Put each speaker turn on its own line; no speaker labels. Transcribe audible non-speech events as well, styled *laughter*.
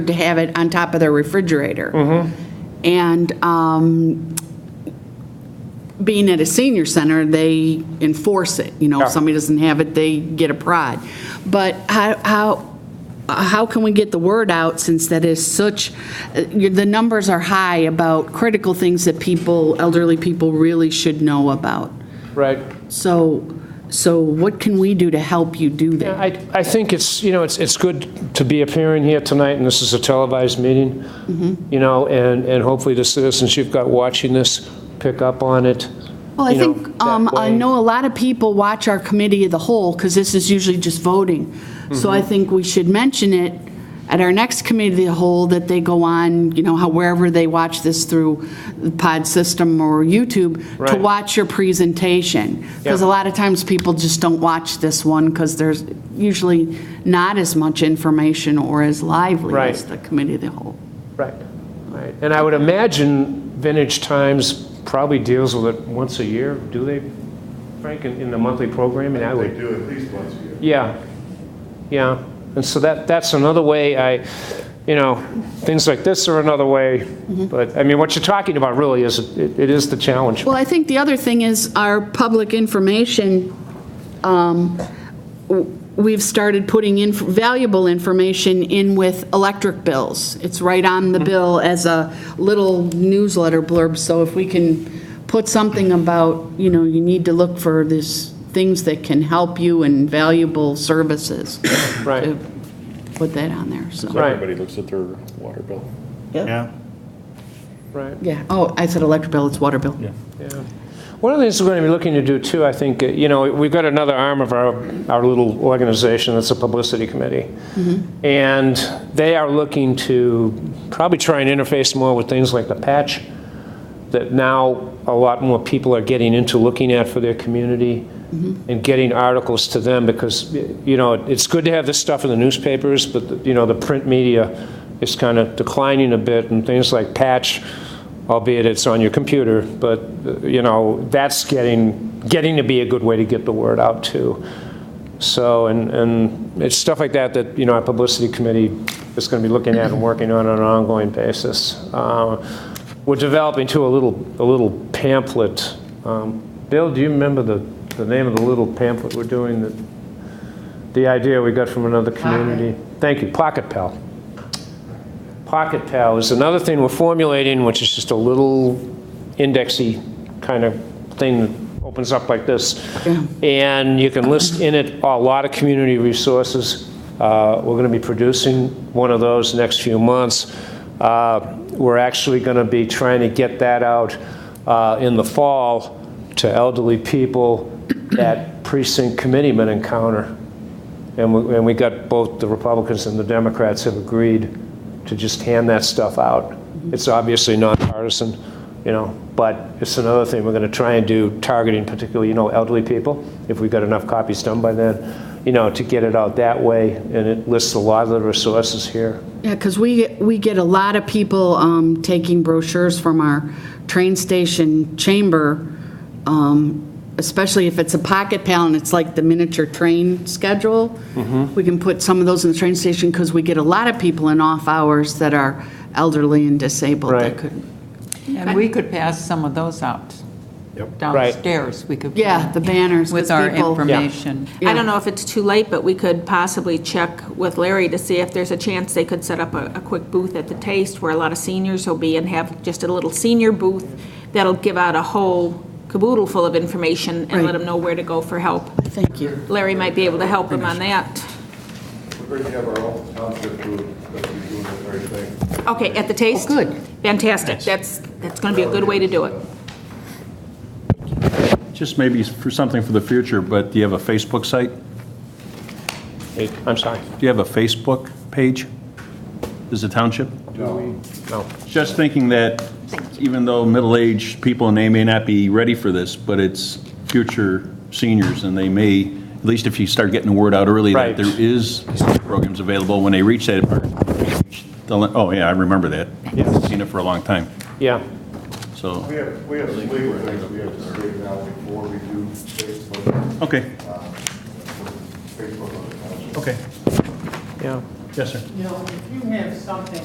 to have it on top of their refrigerator. And um, being at a senior center, they enforce it, you know,
Yeah.
if somebody doesn't have it, they get a prod. But how, how, how can we get the word out since that is such, uh, the numbers are high about critical things that people, elderly people really should know about?
Right.
So, so what can we do to help you do that?
I, I think it's, you know, it's, it's good to be appearing here tonight, and this is a televised meeting,
Mm-hmm.
you know, and, and hopefully the citizens you've got watching this pick up on it.
Well, I
you know,
think, um,
that
I
way.
know a lot of people watch our committee of the whole, because this is usually just voting. So
Mm-hmm.
I think we should mention it at our next committee of the whole, that they go on, you know, how wherever they watch this through the pod system or YouTube, to
Right.
watch your presentation. Because a
Yeah.
lot of times people just don't watch this one, because there's usually not as much information or as lively
Right.
as the committee of the whole.
Right, right. And I would imagine Vintage Times probably deals with it once a year, do they, Frank, in, in the monthly programming? I
They
would,
do at least once a year.
yeah, yeah. And so that, that's another way I, you know, things like this are another way. But, I mean, what you're talking about really is, it it is the challenge.
Well, I think the other thing is our public information, um, w- we've started putting in valuable information in with electric bills. It's right on the bill as a little newsletter blurb, so if we can put something about, you know, you need to look for these things that can help you and valuable services. *coughs*
Right.
to Put that on there, so.
Right.
Everybody looks at their water bill.
Yeah.
Right,
Yeah, oh, I said electric bill, it's water bill.
yeah. One of the things we're going to be looking to do too, I think, uh, you know, we've got another arm of our, our little organization that's a publicity committee. And they are looking to probably try and interface more with things like the patch that now a lot more people are getting into looking at for their community and getting articles to them because, you know, it's good to have this stuff in the newspapers, but, the- you know, the print media is kind of declining a bit and things like Patch, albeit it's on your computer, but, uh, you know, that's getting, getting to be a good way to get the word out too. So, and, and it's stuff like that that, you know, our publicity committee is going to be looking at and working on on an ongoing basis. Uh, We're developing too a little, a little pamphlet. Um, Bill, do you remember the, the name of the little pamphlet we're doing that, the idea we got from another community? Thank you, Pocket Pal. Pocket Pal is another thing we're formulating, which is just a little indexy kind of thing that opens up like this. And you can list in it a lot of community resources. Uh, We're going to be producing one of those next few months. Uh, We're actually going to be trying to get that out uh, in the fall to elderly people that precinct committeemen encounter. And we, and we got both the Republicans and the Democrats have agreed to just hand that stuff out. It's obviously nonpartisan, you know, but it's another thing we're going to try and do, targeting particularly, you know, elderly people, if we've got enough copies done by then, you know, to get it out that way. And it lists a lot of the resources here.
Yeah, because we, we get a lot of people um, taking brochures from our train station chamber, um, especially if it's a pocket pal and it's like the miniature train schedule. We can put some of those in the train station because we get a lot of people in off hours that are elderly and disabled that
Right.
could,
And we could pass some of those out downstairs. We could. put
Yeah, the banners,
With
'cause
our
people-
information.
Yeah.
I don't know if it's too late, but we could possibly check with Larry to see if there's a chance they could set up a, a quick booth at the Taste where a lot of seniors will be and have just a little senior booth that'll give out a whole caboodle full of information and
Right.
let them know where to go for help.
thank you.
Larry might be able to help them on that.
We're going to have our own township group that's doing the very thing.
Okay, at the Taste?
Oh, good.
Fantastic. That's, that's going to be a good way to do it.
Just maybe for something for the future, but do you have a Facebook site?
Hey, I'm sorry,
Do you have a Facebook page? Is the township?
no.
Just thinking that even though middle-aged people, and they may not be ready for this, but it's future seniors and they may, at least if you start getting the word out early
Right.
that there is programs available when they reach that. Oh, yeah, I remember that.
Yes.
Seen it for a long time,
Yeah,
so,
We have, we have some legal things we have to straighten out before we do Facebook,
okay,
Facebook on the township.
okay.
yeah.
Yes, sir.
You know, if you have something